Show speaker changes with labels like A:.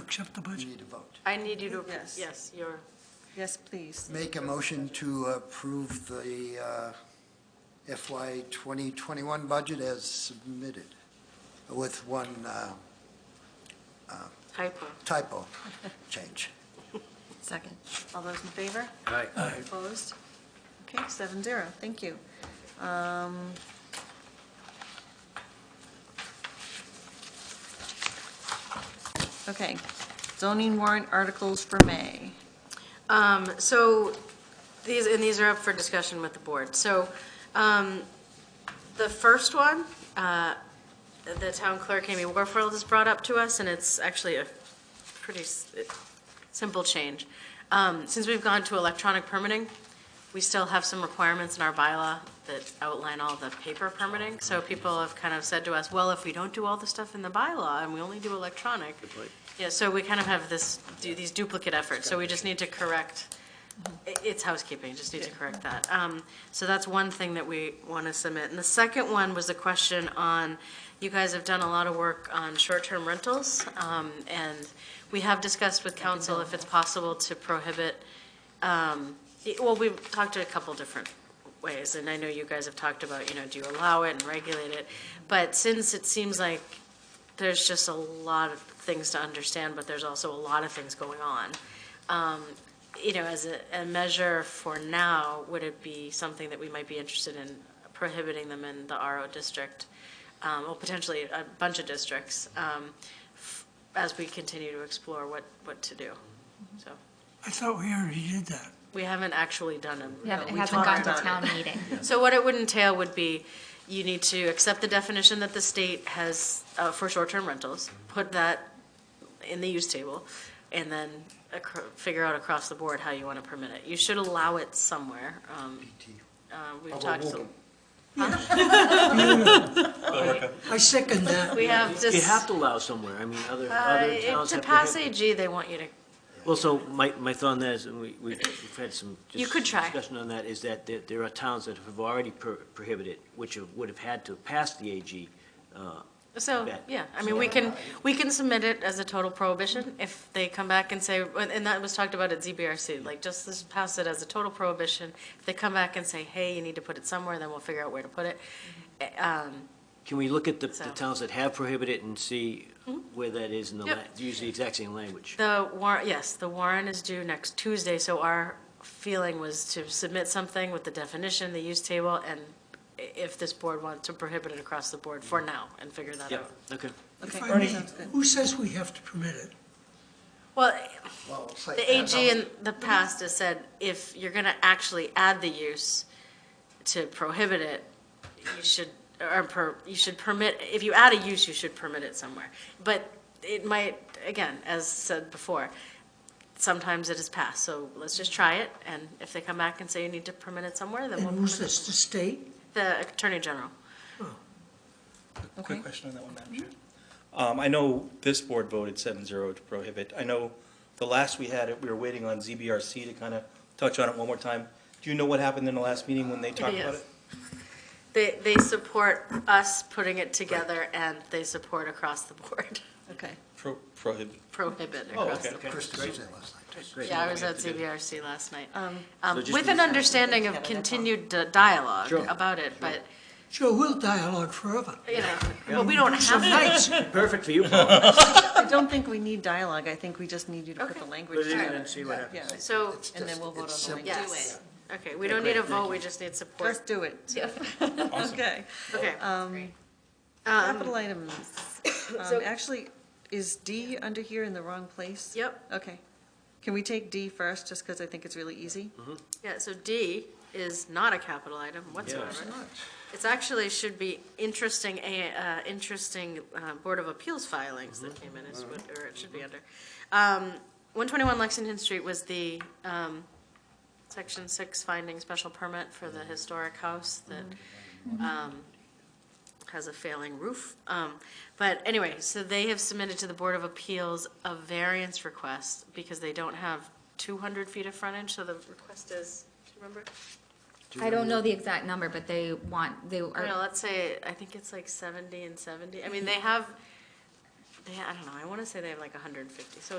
A: accept the
B: We
A: budget?
B: need a vote.
C: I need you to,
D: Yes.
C: yes, you're,
D: Yes, please.
B: Make a motion to approve the uh, FY 2021 budget as submitted, with one uh,
C: hypo.
B: typo change.
D: Second. All those in favor?
E: Aye.
D: Opposed? Okay, seven zero, thank you. Um, Okay, zoning warrant articles for May.
C: Um, So these, and these are up for discussion with the board. So um, the first one, uh, the town clerk, Amy Warfield, has brought up to us, and it's actually a pretty s- simple change. Um, Since we've gone to electronic permitting, we still have some requirements in our bylaw that outline all the paper permitting. So people have kind of said to us, well, if we don't do all the stuff in the bylaw and we only do electronic, yeah, so we kind of have this, do these duplicate efforts, so we just need to correct, i- it's housekeeping, just need to correct that. Um, So that's one thing that we want to submit. And the second one was a question on, you guys have done a lot of work on short-term rentals, um, and we have discussed with council if it's possible to prohibit, um, y- well, we've talked a couple different ways, and I know you guys have talked about, you know, do you allow it and regulate it? But since it seems like there's just a lot of things to understand, but there's also a lot of things going on. Um, You know, as a, a measure for now, would it be something that we might be interested in prohibiting them in the RO district? um, Or potentially a bunch of districts, um, f- as we continue to explore what, what to do? So,
A: I thought we already did that.
C: we haven't actually done them.
F: Yeah, but it
C: We
F: hasn't gone
C: talked
F: to
C: about it.
F: town meeting.
C: So what it would entail would be, you need to accept the definition that the state has uh, for short-term rentals, put that in the use table, and then acro- figure out across the board how you want to permit it. You should allow it somewhere. um, uh,
E: Oh,
C: We've talked, to-
A: I second that.
C: we have just,
E: You have to allow somewhere, I mean, other,
C: Uh,
E: other
C: it-
E: towns
C: to
E: have
C: pass
E: prohibited.
C: AG, they want you to,
E: Well, so my, my thought on that is, and we, we- we've had some. just
C: You could try.
E: Discussion on that, is that there, there are towns that have already pro- prohibited, which have- would have had to pass the AG. uh,
C: so,
E: Bet.
C: yeah, I mean, we can, we can submit it as a total prohibition if they come back and say, and that was talked about at ZBRC, like, just this- pass it as a total prohibition. If they come back and say, hey, you need to put it somewhere, then we'll figure out where to put it. Eh, um,
E: Can we look at the, the
C: So. Mm-hmm.
E: towns that have prohibited and see where that is in the,
C: Yep.
E: la- use the exact same language?
C: The warrant, yes, the warrant is due next Tuesday, so our feeling was to submit something with the definition, the use table, and i- if this board wants to prohibit it across the board for now and figure that
E: Yep,
C: out.
E: okay.
D: Okay,
A: If I may,
D: sounds good.
A: who says we have to permit it?
C: Well,
B: Well, it's like- uh,
C: the AG in the past has said, if you're gonna actually add the use to prohibit it, you should, or per, you should permit, if you add a use, you should permit it somewhere. But it might, again, as said before, sometimes it is passed, so let's just try it, and if they come back and say you need to permit it somewhere, then we'll
A: And
C: permit
A: who's
C: it.
A: this, the
C: somewhere.
A: state?
C: The Attorney General.
D: Okay.
G: Quick question on that one, Madam Chair. Um, I know this board voted 7-0 to prohibit. I know the last we had it, we were waiting on ZBRC to kind of touch on it one more time. Do you know what happened in the last meeting when they talked
C: Yes.
G: about it?
C: They, they support us putting it together, and they support across the board,
D: Okay,
G: Pro- Prohibit.
C: prohibit
G: Oh,
C: across the
G: okay.
C: board.
B: Kristen was there last night.
C: Yeah, I was
G: We have
C: at
G: to do-
C: CBRC last night,
D: Um,
C: Um,
E: So just
C: with
E: leave
C: an
E: that.
C: understanding
D: Yeah,
C: of
D: that's all.
C: continued di- dialogue
E: Sure.
C: about it, but,
A: Sure, we'll dialogue forever.
C: you know, but we don't have to.
A: Nice.
E: Perfect for you, Paul.
D: I don't think we need dialogue, I think we just need you to put the
C: Okay.
D: language
E: Put it in
D: together.
E: and see what happens.
D: Yeah,
C: So,
B: It's
D: and then
B: just-
D: we'll vote
B: it's
D: on the
B: simple.
D: language.
C: yes, okay, we don't need a vote, we just need
D: Just
C: support.
D: do it. Okay.
C: Okay,
D: Um, Capital items. Um,
C: So-
D: Actually, is D under here in the wrong place?
C: yep,
D: Okay. Can we take D first, just because I think it's really easy?
C: yeah, so D is not a capital item whatsoever. It's actually, should be interesting, a- uh, interesting uh, Board of Appeals filings
E: Mm-hmm.
C: that came in, is what, or it should be under. Um, 121 Lexington Street was the um, Section 6 finding special permit for
E: Mm-hmm.
C: the historic house that um, has a failing roof. Um, But anyway, so they have submitted to the Board of Appeals a variance request because they don't have 200 feet of frontage, so the request is, do you remember?
F: I don't know the exact number, but they want, they
C: I don't know,
F: are,
C: let's say, I think it's like seventy and seventy, I mean, they have, they, I don't know, I wanna say they have like hundred and fifty, so